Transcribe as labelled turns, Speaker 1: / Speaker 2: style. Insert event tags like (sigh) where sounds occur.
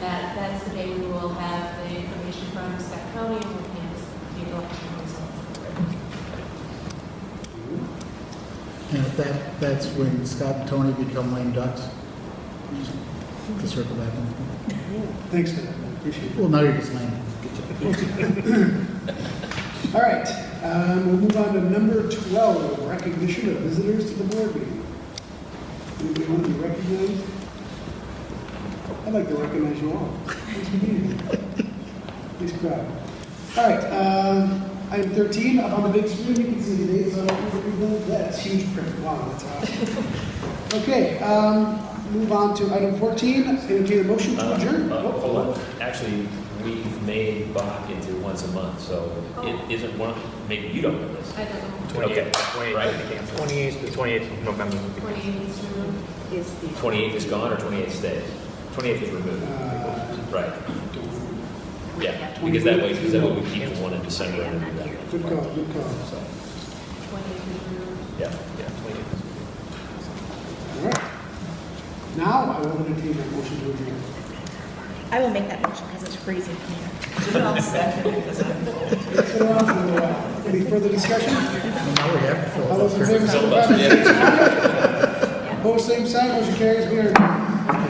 Speaker 1: that, that's the day we will have the information from Scott County and we'll hand the election results.
Speaker 2: And if that, that's when Scott and Tony become lame ducks. Just To circle back. on.
Speaker 3: Thanks for that, man. Appreciate it.
Speaker 2: Well, now you're just lame.
Speaker 3: All right, um, we'll move on to number 12, recognition of visitors to the board meeting. Anybody want to be recognized? I'd like to recognize you all. (laughs) Nice community. Nice crowd. All right, um, item 13, up on the big screen, you can see the dates on everything. That's huge print. Wow, that's awesome. Okay, um, move on to item 14, entertain a motion to
Speaker 4: Uh,
Speaker 3: adjourn.
Speaker 4: uh,
Speaker 3: Oh,
Speaker 4: Hold on, actually, we've made Bach into once a month, so
Speaker 1: Oh.
Speaker 4: it isn't one, of- maybe you don't know this.
Speaker 1: I don't know,
Speaker 4: Okay,
Speaker 5: 28th, 28th,
Speaker 4: right.
Speaker 5: the 28th of November. would be-
Speaker 1: twenty-eight is removed.
Speaker 6: is the.
Speaker 4: 28th is gone or 28th stays? 28th is removed,
Speaker 3: Uh,
Speaker 4: right,
Speaker 3: don't remember.
Speaker 4: yeah, because that way, because that way we keep the one in December and then that
Speaker 3: Good
Speaker 4: one.
Speaker 3: call, good call.
Speaker 4: So,
Speaker 1: Twenty-eight is removed.
Speaker 4: yeah, yeah, 28th.
Speaker 3: All right. Now I will entertain a motion to adjourn.
Speaker 6: I will make that motion because it's freezing here.
Speaker 3: It's been around for a while. Any further discussion?
Speaker 2: And now we have to fill
Speaker 3: All those
Speaker 2: it
Speaker 3: in
Speaker 2: up.
Speaker 3: favor, signify by saying aye. Opposed, same sign, motion carries. We are adjourned.